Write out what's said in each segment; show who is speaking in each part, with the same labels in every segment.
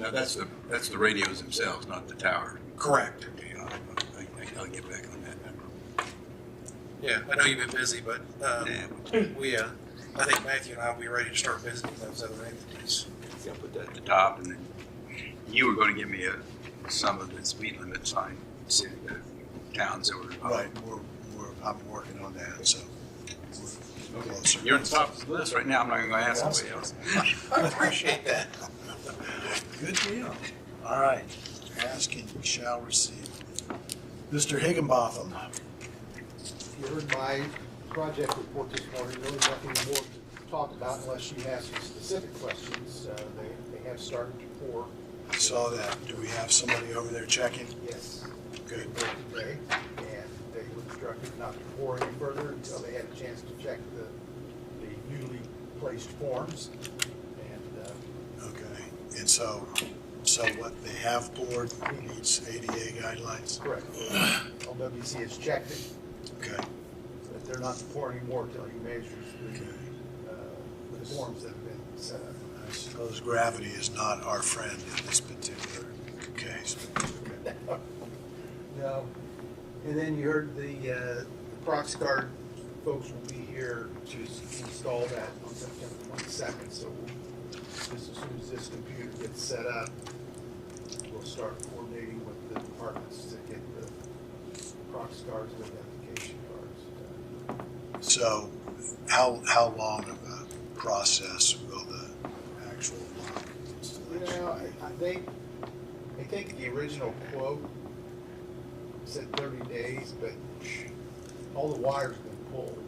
Speaker 1: Now, that's the, that's the radios themselves, not the tower.
Speaker 2: Correct.
Speaker 1: Okay, I'll, I- I'll get back on that.
Speaker 2: Yeah, I know you've been busy, but um,
Speaker 1: Yeah,
Speaker 2: we, uh, I think Matthew and I will be ready to start visiting those other entities.
Speaker 1: I'll put that at the top, and then you were gonna give me a, some of the speed limit sign, city, uh, towns that were.
Speaker 3: Right, we're, we're, I'm working on that, so. we're closer.
Speaker 1: You're on top of the list right now, I'm not gonna ask anybody else.
Speaker 2: I appreciate that.
Speaker 3: Good deal. All right, ask and you shall receive. Mr. Higginbotham,
Speaker 4: You heard my project report this morning, really nothing more to talk about unless you have some specific questions. Uh, They, they have started to pour,
Speaker 3: I saw that. Do we have somebody over there checking?
Speaker 4: yes,
Speaker 3: Good.
Speaker 4: today, and they were instructed not to pour any further until they had a chance to check the, the newly placed forms. And uh,
Speaker 3: Okay, and so, so what they have poured meets ADA guidelines?
Speaker 4: correct, LWC has checked it,
Speaker 3: Okay,
Speaker 4: that they're not to pour any more until he measures
Speaker 3: okay.
Speaker 4: the, uh, the forms that have been set up.
Speaker 3: I suppose gravity is not our friend in this particular case.
Speaker 4: No. And then you heard the, uh, Proxguard folks will be here to install that on September twenty-second, so we'll- just as soon as this computer gets set up, we'll start coordinating with the departments to get the Proxguards and identification cards. done.
Speaker 3: So how, how long of a process will the actual line installation
Speaker 4: Well, I, I think, I think the original quote said thirty days, but all the wires have been pulled.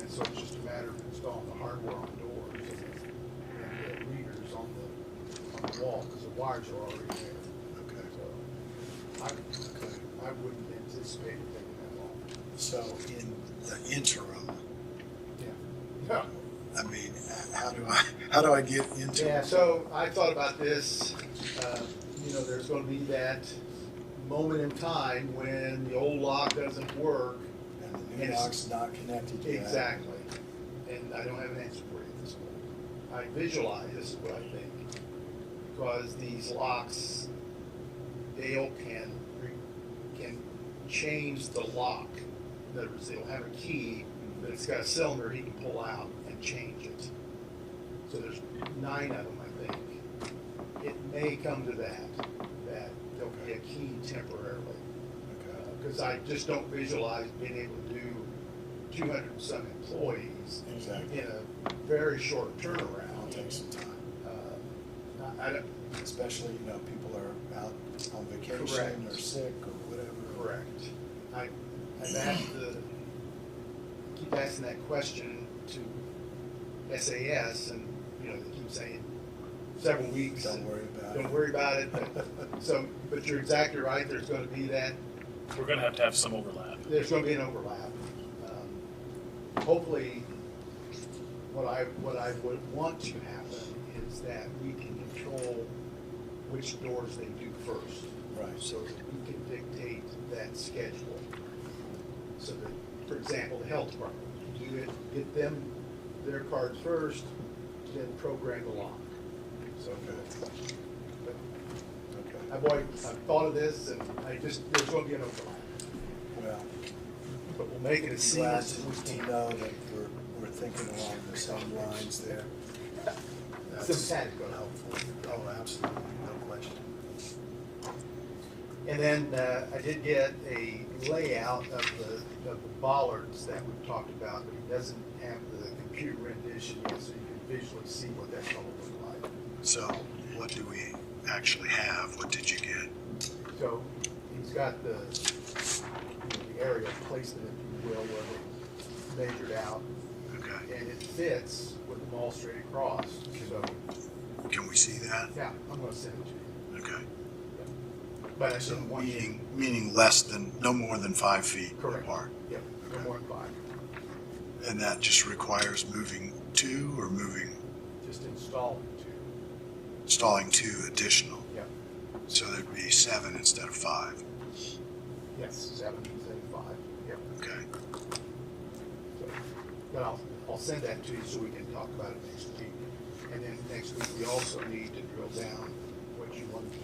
Speaker 4: And so it's just a matter of installing the hardware on doors and the readers on the, on the wall, because the wires are already there.
Speaker 3: be? Okay.
Speaker 4: So I, I wouldn't anticipate it taking that long.
Speaker 3: So in the interim,
Speaker 4: Yeah.
Speaker 3: I mean, how do I, how do I get into?
Speaker 4: Yeah, so I thought about this, uh, you know, there's gonna be that moment in time when the old lock doesn't work.
Speaker 3: And the new
Speaker 4: Yes.
Speaker 3: lock's not connected yet.
Speaker 4: Exactly. And I don't have an answer for you at this point. I visualize, this is what I think, because these locks, Dale can, re- can change the lock. In other words, they'll have a key, but it's got a cylinder he can pull out and change it. So there's nine of them, I think. It may come to that, that there'll be a key temporarily
Speaker 3: Okay.
Speaker 4: because I just don't visualize being able to do two hundred and some employees
Speaker 3: Exactly.
Speaker 4: in a very short
Speaker 3: It'll
Speaker 4: turnaround.
Speaker 3: take some time,
Speaker 4: Uh, I, I don't,
Speaker 3: especially, you know, people are out on vacation
Speaker 4: Correct.
Speaker 3: or sick or whatever.
Speaker 4: correct. I, I've asked the, keep asking that question to SAS and, you know, they keep saying several weeks.
Speaker 3: Don't
Speaker 4: and
Speaker 3: worry about it.
Speaker 4: Don't worry about it, but, so, but you're exactly right, there's gonna be that
Speaker 5: We're gonna have to have some overlap.
Speaker 4: there's gonna be an overlap. Um, Hopefully, what I, what I would want to happen is that we can control which doors they do first.
Speaker 3: Right.
Speaker 4: So that we can dictate that schedule. So that, for example, the health department, you get, get them their cards first, then program the lock. So, but
Speaker 3: Okay.
Speaker 4: I've already, I've thought of this and I just, there's gonna be an overlap,
Speaker 3: Well,
Speaker 4: but we'll make it as
Speaker 3: I'm
Speaker 4: seamless
Speaker 3: glad
Speaker 4: as we
Speaker 3: to
Speaker 4: can.
Speaker 3: know that we're, we're thinking along the same lines there. That's
Speaker 4: Sympathetic.
Speaker 3: Helpful. Oh, absolutely, no question.
Speaker 4: And then uh, I did get a layout of the, of the bollards that we've talked about, but it doesn't have the computer rendition yet, so you can visually see what that's gonna look like.
Speaker 3: So what do we actually have? What did you get?
Speaker 4: So he's got the, you know, the area of placement, if you will, where they measured out,
Speaker 3: Okay,
Speaker 4: and it fits with them all straight across, so,
Speaker 3: can we see that?
Speaker 4: yeah, I'm gonna send it to you.
Speaker 3: Okay.
Speaker 4: But I
Speaker 3: So
Speaker 4: didn't want you,
Speaker 3: meaning, meaning less than, no more than five feet
Speaker 4: Correct.
Speaker 3: apart.
Speaker 4: yeah, no more than five,
Speaker 3: And that just requires moving two or moving,
Speaker 4: just install it to,
Speaker 3: installing two additional.
Speaker 4: yeah,
Speaker 3: So there'd be seven instead of five.
Speaker 4: yes, seven, seven, five, yeah.
Speaker 3: Okay,
Speaker 4: But I'll, I'll send that to you so we can talk about it next week. And then next week, we also need to drill down what what you want to